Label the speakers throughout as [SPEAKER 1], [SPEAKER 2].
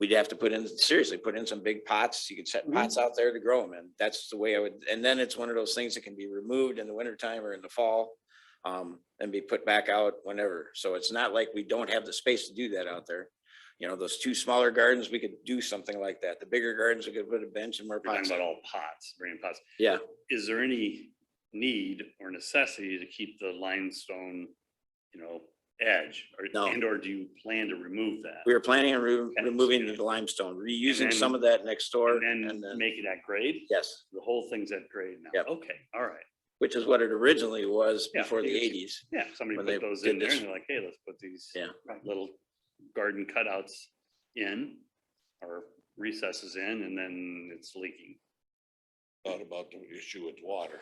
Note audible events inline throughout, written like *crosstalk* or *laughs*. [SPEAKER 1] we'd have to put in, seriously, put in some big pots. You could set
[SPEAKER 2] Mhm.
[SPEAKER 1] pots out there to grow them in. That's the way I would, and then it's one of those things that can be removed in the wintertime or in the fall. Um, and be put back out whenever. So it's not like we don't have the space to do that out there. You know, those two smaller gardens, we could do something like that. The bigger gardens, we could put a bench and more
[SPEAKER 2] We're talking
[SPEAKER 1] pots.
[SPEAKER 2] about all pots, bringing pots.
[SPEAKER 1] Yeah.
[SPEAKER 2] Is there any need or necessity to keep the limestone, you know, edge? Or,
[SPEAKER 1] No.
[SPEAKER 2] and or do you plan to remove that?
[SPEAKER 1] We were planning on remo-
[SPEAKER 2] Okay.
[SPEAKER 1] removing the limestone,
[SPEAKER 2] And then-
[SPEAKER 1] reusing some of that next door
[SPEAKER 2] And
[SPEAKER 1] and
[SPEAKER 2] then
[SPEAKER 1] then,
[SPEAKER 2] make it at grade?
[SPEAKER 1] yes,
[SPEAKER 2] The whole thing's at grade now?
[SPEAKER 1] Yep.
[SPEAKER 2] Okay, all right.
[SPEAKER 1] which is what it originally was
[SPEAKER 2] Yeah,
[SPEAKER 1] before the
[SPEAKER 2] it is.
[SPEAKER 1] eighties.
[SPEAKER 2] Yeah, somebody
[SPEAKER 1] When
[SPEAKER 2] put
[SPEAKER 1] they
[SPEAKER 2] those
[SPEAKER 1] did
[SPEAKER 2] in there
[SPEAKER 1] this-
[SPEAKER 2] and they're like, hey, let's put these
[SPEAKER 1] Yeah.
[SPEAKER 2] little garden cutouts in or recesses in and then it's leaking.
[SPEAKER 3] thought about the issue with water.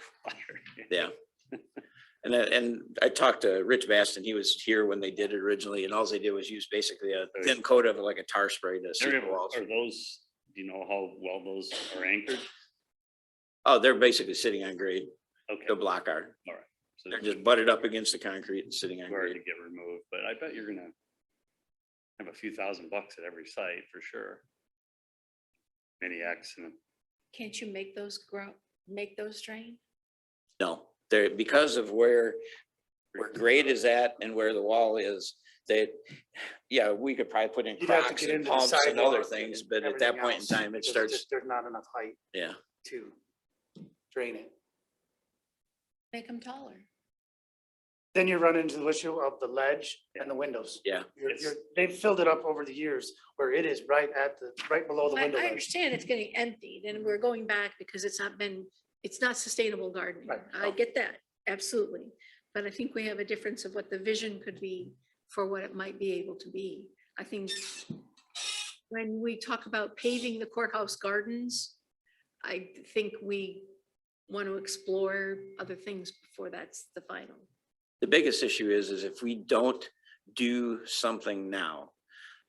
[SPEAKER 1] Yeah. *laughs* And I- and I talked to Rich Baston, he was here when they did it originally, and all they did was use basically a
[SPEAKER 2] Very-
[SPEAKER 1] thin coat of like a tar spray to seal
[SPEAKER 2] Are
[SPEAKER 1] the walls.
[SPEAKER 2] are those, do you know how well those are anchored?
[SPEAKER 1] Oh, they're basically sitting on grade,
[SPEAKER 2] Okay.
[SPEAKER 1] the block are,
[SPEAKER 2] so
[SPEAKER 1] they're just butted up against the concrete and sitting on
[SPEAKER 2] Where to
[SPEAKER 1] grade.
[SPEAKER 2] get removed, but I bet you're gonna have a few thousand bucks at every site for sure. Any accident.
[SPEAKER 4] Can't you make those grow, make those drain?
[SPEAKER 1] No, they're, because of where, where grade is at and where the wall is, they, yeah, we could probably put in
[SPEAKER 5] You'd have to
[SPEAKER 1] cracks
[SPEAKER 5] get
[SPEAKER 1] and
[SPEAKER 5] into the
[SPEAKER 1] pumps and other
[SPEAKER 5] sidewalk
[SPEAKER 1] things,
[SPEAKER 5] and
[SPEAKER 1] but at that
[SPEAKER 5] everything
[SPEAKER 1] point in
[SPEAKER 5] else,
[SPEAKER 1] time, it
[SPEAKER 5] because
[SPEAKER 1] starts,
[SPEAKER 5] just- There's not enough height
[SPEAKER 1] yeah.
[SPEAKER 5] to drain it.
[SPEAKER 4] Make them taller.
[SPEAKER 5] Then you run into the issue of the ledge and the windows.
[SPEAKER 1] Yeah.
[SPEAKER 5] You're,
[SPEAKER 2] It's-
[SPEAKER 5] you're, they've filled it up over the years where it is right at the, right below the
[SPEAKER 4] I,
[SPEAKER 5] window Mm-hmm.
[SPEAKER 4] I
[SPEAKER 5] ledge.
[SPEAKER 4] understand it's getting emptied and we're going back because it's not been, it's not sustainable gardening.
[SPEAKER 5] Right.
[SPEAKER 4] I get that, absolutely. But I think we have a difference of what the vision could be for what it might be able to be. I think when we talk about paving the courthouse gardens, I think we want to explore other things before that's the final.
[SPEAKER 1] The biggest issue is, is if we don't do something now,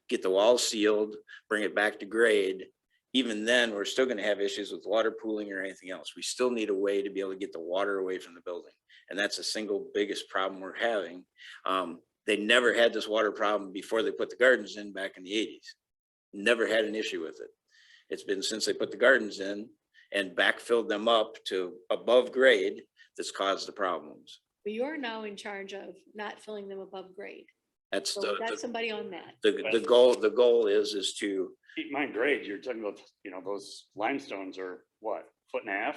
[SPEAKER 1] get the wall sealed, bring it back to grade, even then, we're still gonna have issues with water pooling or anything else. We still need a way to be able to get the water away from the building. And that's the single biggest problem we're having. Um, they never had this water problem before they put the gardens in back in the eighties. Never had an issue with it. It's been since they put the gardens in and backfilled them up to above grade that's caused the problems.
[SPEAKER 4] But you're now in charge of not filling them above grade.
[SPEAKER 1] That's
[SPEAKER 4] So
[SPEAKER 1] the,
[SPEAKER 4] that's
[SPEAKER 1] the-
[SPEAKER 4] somebody on that.
[SPEAKER 1] the, the goal, the goal is, is to,
[SPEAKER 2] Keep mine grade, you're talking about, you know, those limestones are what, foot and a half?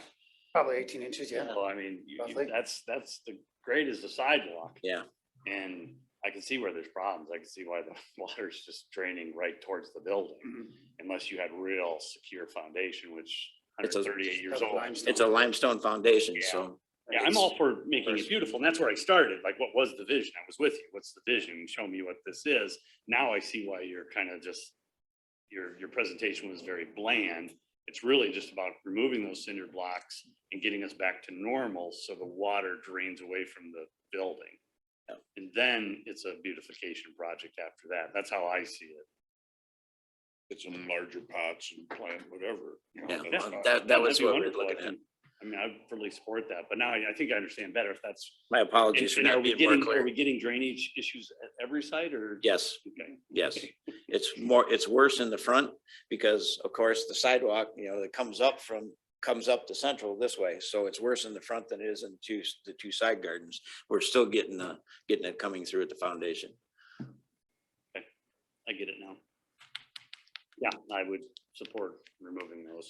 [SPEAKER 5] Probably eighteen inches, yeah.
[SPEAKER 2] Well, I mean, you- you-
[SPEAKER 5] Roughly.
[SPEAKER 2] that's, that's, the grade is the sidewalk.
[SPEAKER 1] Yeah.
[SPEAKER 2] And I can see where there's problems. I can see why the *laughs* water's just draining right towards the building.
[SPEAKER 5] Mm-hmm.
[SPEAKER 2] Unless you had real secure foundation, which
[SPEAKER 1] It's a-
[SPEAKER 2] 138 years
[SPEAKER 5] Double
[SPEAKER 2] old.
[SPEAKER 5] limestone.
[SPEAKER 1] it's a limestone foundation,
[SPEAKER 2] Yeah.
[SPEAKER 1] so.
[SPEAKER 2] Yeah, I'm all for making
[SPEAKER 1] Versus-
[SPEAKER 2] it beautiful, and that's where I started, like, what was the vision? I was with you, what's the vision? Show me what this is. Now I see why you're kind of just, your, your presentation was very bland. It's really just about removing those cinder blocks and getting us back to normal, so the water drains away from the building.
[SPEAKER 1] Yep.
[SPEAKER 2] And then it's a beautification project after that, that's how I see it.
[SPEAKER 3] It's in larger pots and plant whatever. you know, that's
[SPEAKER 1] Yeah, that-
[SPEAKER 3] fine.
[SPEAKER 1] that, that
[SPEAKER 2] That'd
[SPEAKER 1] was
[SPEAKER 2] be
[SPEAKER 1] what we we're
[SPEAKER 2] wonderful, I
[SPEAKER 1] looking at.
[SPEAKER 2] think. I mean, I fully support that, but now I, I think I understand better if that's
[SPEAKER 1] My
[SPEAKER 2] And
[SPEAKER 1] apologies for
[SPEAKER 2] and are
[SPEAKER 1] not
[SPEAKER 2] we
[SPEAKER 1] being more
[SPEAKER 2] getting, are
[SPEAKER 1] clear.
[SPEAKER 2] we getting drainage issues at every site or?
[SPEAKER 1] Yes,
[SPEAKER 2] Okay.
[SPEAKER 1] yes. It's more, it's worse in the front because of course the sidewalk, you know, that comes up from, comes up to central this way. So it's worse in the front than it is in two, the two side gardens. We're still getting, uh, getting it coming through at the foundation.
[SPEAKER 2] I get it now. Yeah, I would support removing those.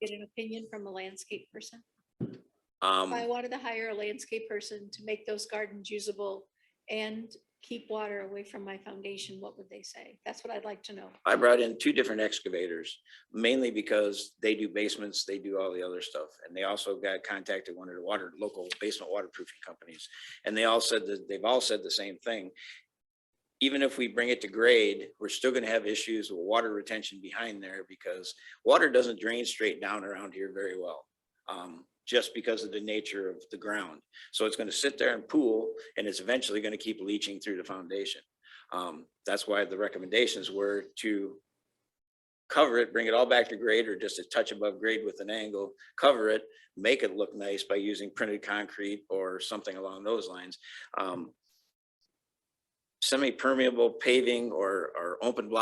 [SPEAKER 4] Get an opinion from a landscape person. If I
[SPEAKER 1] Um,
[SPEAKER 4] wanted to hire a landscape person to make those gardens usable and keep water away from my foundation, what would they say? That's what I'd like to know.
[SPEAKER 1] I brought in two different excavators, mainly because they do basements, they do all the other stuff. And they also got contacted one of the water, local basement waterproofing companies. And they all said that, they've all said the same thing. Even if we bring it to grade, we're still gonna have issues with water retention behind there because water doesn't drain straight down around here very well. Um, just because of the nature of the ground. So it's gonna sit there and pool and it's eventually gonna keep leaching through the foundation. Um, that's why the recommendations were to cover it, bring it all back to grade or just a touch above grade with an angle, cover it, make it look nice by using printed concrete or something along those lines. Um, Semi-permeable paving or, or open block